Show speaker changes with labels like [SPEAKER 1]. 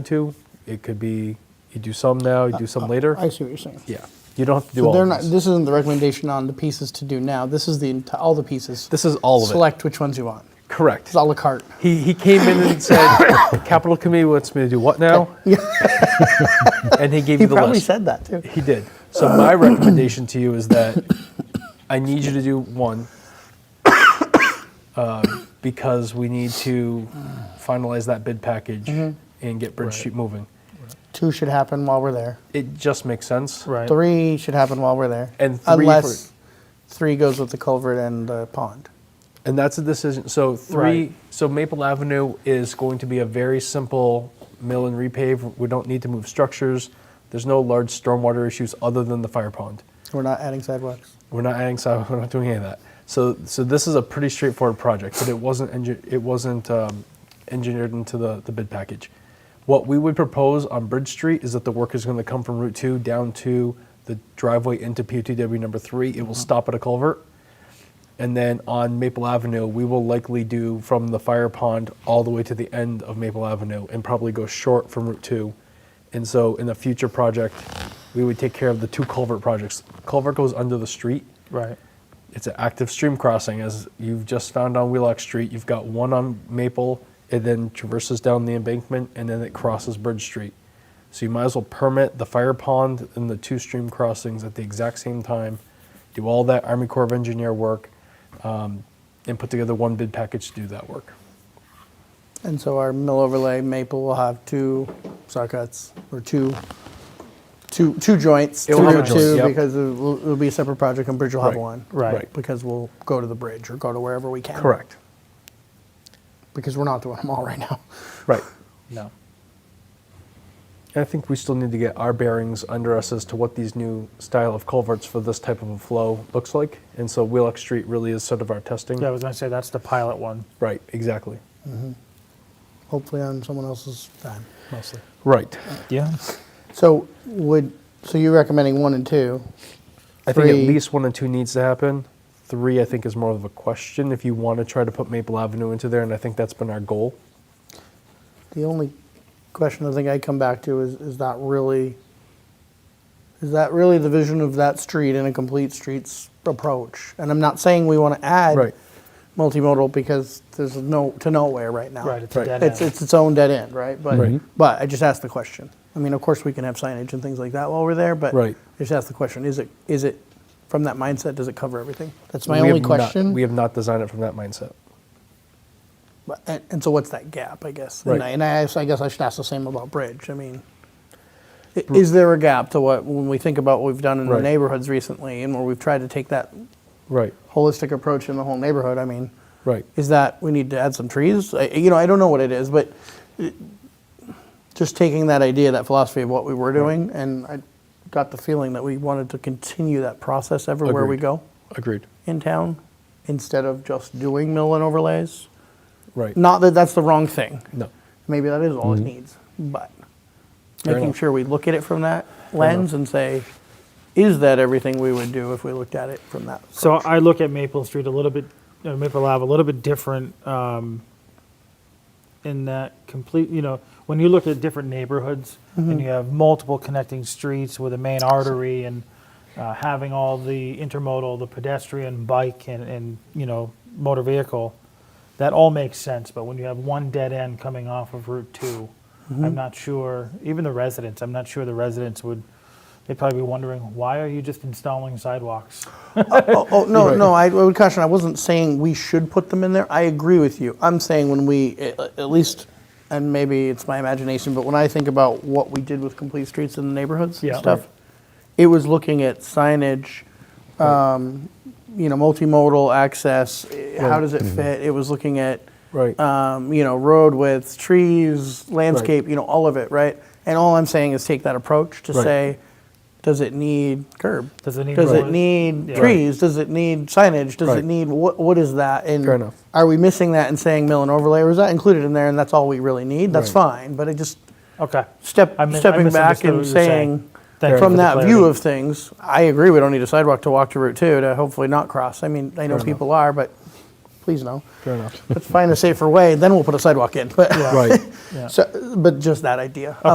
[SPEAKER 1] to. It could be, you do some now, you do some later.
[SPEAKER 2] I see what you're saying.
[SPEAKER 1] Yeah, you don't have to do
[SPEAKER 2] So
[SPEAKER 1] all
[SPEAKER 2] they're
[SPEAKER 1] of
[SPEAKER 2] not,
[SPEAKER 1] this.
[SPEAKER 2] this isn't the recommendation on the pieces to do now. This is the, enti- all the pieces.
[SPEAKER 1] This is all of it.
[SPEAKER 2] Select which ones you want.
[SPEAKER 1] Correct.
[SPEAKER 2] It's à la carte.
[SPEAKER 1] He, he came in and said, capital committee wants me to do what now? And he gave
[SPEAKER 2] He
[SPEAKER 1] you the
[SPEAKER 2] probably
[SPEAKER 1] list.
[SPEAKER 2] said that too.
[SPEAKER 1] He did. So my recommendation to you is that I need you to do one um, because we need to finalize that bid package
[SPEAKER 2] Mm-hmm.
[SPEAKER 1] and get Bridge Street moving.
[SPEAKER 2] Two should happen while we're there.
[SPEAKER 1] It just makes sense.
[SPEAKER 3] Right.
[SPEAKER 2] Three should happen while we're there.
[SPEAKER 1] And three for-
[SPEAKER 2] Unless three goes with the culvert and the pond.
[SPEAKER 1] And that's a decision. So three.
[SPEAKER 3] Right.
[SPEAKER 1] So Maple Avenue is going to be a very simple mill and repave. We don't need to move structures. There's no large stormwater issues other than the fire pond.
[SPEAKER 2] We're not adding sidewalks.
[SPEAKER 1] We're not adding sidewalk. We're not doing any of that. So so this is a pretty straightforward project, but it wasn't engi- it wasn't um, engineered into the, the bid package. What we would propose on Bridge Street is that the work is going to come from Route Two down to the driveway into PUTW number three. It will stop at a culvert. And then on Maple Avenue, we will likely do from the fire pond all the way to the end of Maple Avenue and probably go short from Route 2. And so in a future project, we would take care of the two culvert projects. Culvert goes under the street.
[SPEAKER 3] Right.
[SPEAKER 1] It's an active stream crossing, as you've just found on Wheelock Street. You've got one on Maple, it then traverses down the embankment, and then it crosses Bridge Street. So you might as well permit the fire pond and the two stream crossings at the exact same time, do all that Army Corps of Engineer work, um, and put together one bid package to do that work.
[SPEAKER 2] And so our mill overlay maple will have two saw cuts or two, two, two joints.
[SPEAKER 1] It will have a
[SPEAKER 2] Route
[SPEAKER 1] joint,
[SPEAKER 2] two
[SPEAKER 1] yep.
[SPEAKER 2] Because it'll, it'll be a separate project and Bridge will have
[SPEAKER 1] Right,
[SPEAKER 2] one.
[SPEAKER 3] right.
[SPEAKER 1] Right.
[SPEAKER 2] Because we'll go to the bridge or go to wherever we can.
[SPEAKER 1] Correct.
[SPEAKER 2] Because we're not doing them all right now.
[SPEAKER 1] Right.
[SPEAKER 3] No.
[SPEAKER 1] I think we still need to get our bearings under us as to what these new style of culverts for this type of a flow looks like. And so Wheelock Street really is sort of our testing.
[SPEAKER 3] Yeah, I was gonna say that's the pilot one.
[SPEAKER 1] Right, exactly.
[SPEAKER 2] Hopefully on someone else's time mostly.
[SPEAKER 1] Right.
[SPEAKER 3] Yeah.
[SPEAKER 2] So would, so you're recommending one and two?
[SPEAKER 1] I think at
[SPEAKER 2] Three-
[SPEAKER 1] least one and two needs to happen. Three, I think, is more of a question if you want to try to put Maple Avenue into there, and I think that's been our goal.
[SPEAKER 2] The only question I think I come back to is, is that really, is that really the vision of that street in a complete streets approach? And I'm not saying we want to add
[SPEAKER 1] Right.
[SPEAKER 2] multimodal because there's no, to nowhere right now.
[SPEAKER 3] Right, it's a Right. dead
[SPEAKER 2] It's,
[SPEAKER 3] end.
[SPEAKER 2] it's its own dead end, right? But,
[SPEAKER 1] Right. Mhm.
[SPEAKER 2] but I just asked the question. I mean, of course, we can have signage and things like that while we're there, but
[SPEAKER 1] Right.
[SPEAKER 2] I just asked the question, is it, is it, from that mindset, does it cover everything? That's my
[SPEAKER 1] We
[SPEAKER 2] only
[SPEAKER 1] have not-
[SPEAKER 2] question.
[SPEAKER 1] we have not designed it from that mindset.
[SPEAKER 2] But- And, and so what's that gap, I guess? And,
[SPEAKER 1] Right.
[SPEAKER 2] I, and I, I guess I should ask the same about Bridge. I mean, i- is there a gap to what, when we think about what we've done in
[SPEAKER 1] Right.
[SPEAKER 2] the neighborhoods recently and where we've tried to take that
[SPEAKER 1] Right,
[SPEAKER 2] holistic approach in the whole neighborhood? I mean,
[SPEAKER 1] right.
[SPEAKER 2] is that we need to add some trees? I, you know, I don't know what it is, but it- just taking that idea, that philosophy of what we were doing, and I got the feeling that we wanted to continue that process everywhere we
[SPEAKER 1] Agreed.
[SPEAKER 2] go
[SPEAKER 1] Agreed.
[SPEAKER 2] in town instead of just doing mill and overlays.
[SPEAKER 1] Right.
[SPEAKER 2] Not that that's the wrong thing.
[SPEAKER 1] No.
[SPEAKER 2] Maybe that is all it needs, but
[SPEAKER 1] Mm-hmm. Fair
[SPEAKER 2] making
[SPEAKER 1] enough.
[SPEAKER 2] sure we look at it from that lens and say, is that everything we would do if we looked at it from that?
[SPEAKER 3] So I look at Maple Street a little bit, uh, Maple Ave a little bit different um, in that complete, you know, when you look at different neighborhoods and you have multiple connecting streets with a main artery and uh, having all the intermodal, the pedestrian, bike, and, and, you know, motor vehicle, that all makes sense. But when you have one dead end coming off of Route 2, I'm not sure, even the residents, I'm not sure the residents would, they'd probably be wondering, why are you just installing sidewalks?
[SPEAKER 2] Oh, oh, no,
[SPEAKER 1] Right.
[SPEAKER 2] no, I would caution, I wasn't saying we should put them in there. I agree with you. I'm saying when we, at at least, and maybe it's my imagination, but when I think about what we did with complete streets in the neighborhoods and
[SPEAKER 3] Yeah.
[SPEAKER 2] stuff,
[SPEAKER 3] Right.
[SPEAKER 2] it was looking at signage, um, you know, multimodal access, eh, how
[SPEAKER 1] Right. Mm-hmm.
[SPEAKER 2] does it fit? It was looking at,
[SPEAKER 1] Right.
[SPEAKER 2] um, you know, road width, trees, landscape, you know, all of it, right? And all I'm saying is take that approach to
[SPEAKER 1] Right.
[SPEAKER 2] say, does it need curb?
[SPEAKER 3] Does it need
[SPEAKER 2] Does it
[SPEAKER 3] roads?
[SPEAKER 2] need
[SPEAKER 3] Yeah.
[SPEAKER 2] trees? Does it need signage? Does
[SPEAKER 1] Right.
[SPEAKER 2] it need, what, what is that? And
[SPEAKER 1] Fair enough.
[SPEAKER 2] Are we missing that and saying mill and overlay, or is that included in there and that's all we really need? That's
[SPEAKER 1] Right.
[SPEAKER 2] fine, but I just
[SPEAKER 3] Okay.
[SPEAKER 2] step,
[SPEAKER 3] I mis- I
[SPEAKER 2] stepping back
[SPEAKER 3] misunderstood what
[SPEAKER 2] and
[SPEAKER 3] you were saying.
[SPEAKER 2] saying,
[SPEAKER 3] Thank you
[SPEAKER 2] from
[SPEAKER 3] for the
[SPEAKER 2] that view
[SPEAKER 3] clarity.
[SPEAKER 2] of things, I agree, we don't need a sidewalk to walk to Route Two to hopefully not cross. I mean, I know
[SPEAKER 1] enough.
[SPEAKER 2] people are, but please no.
[SPEAKER 1] Fair enough.
[SPEAKER 2] Let's find a safer way, then we'll put a sidewalk in. But,
[SPEAKER 1] Right.
[SPEAKER 3] Yeah.
[SPEAKER 2] so, but just that idea.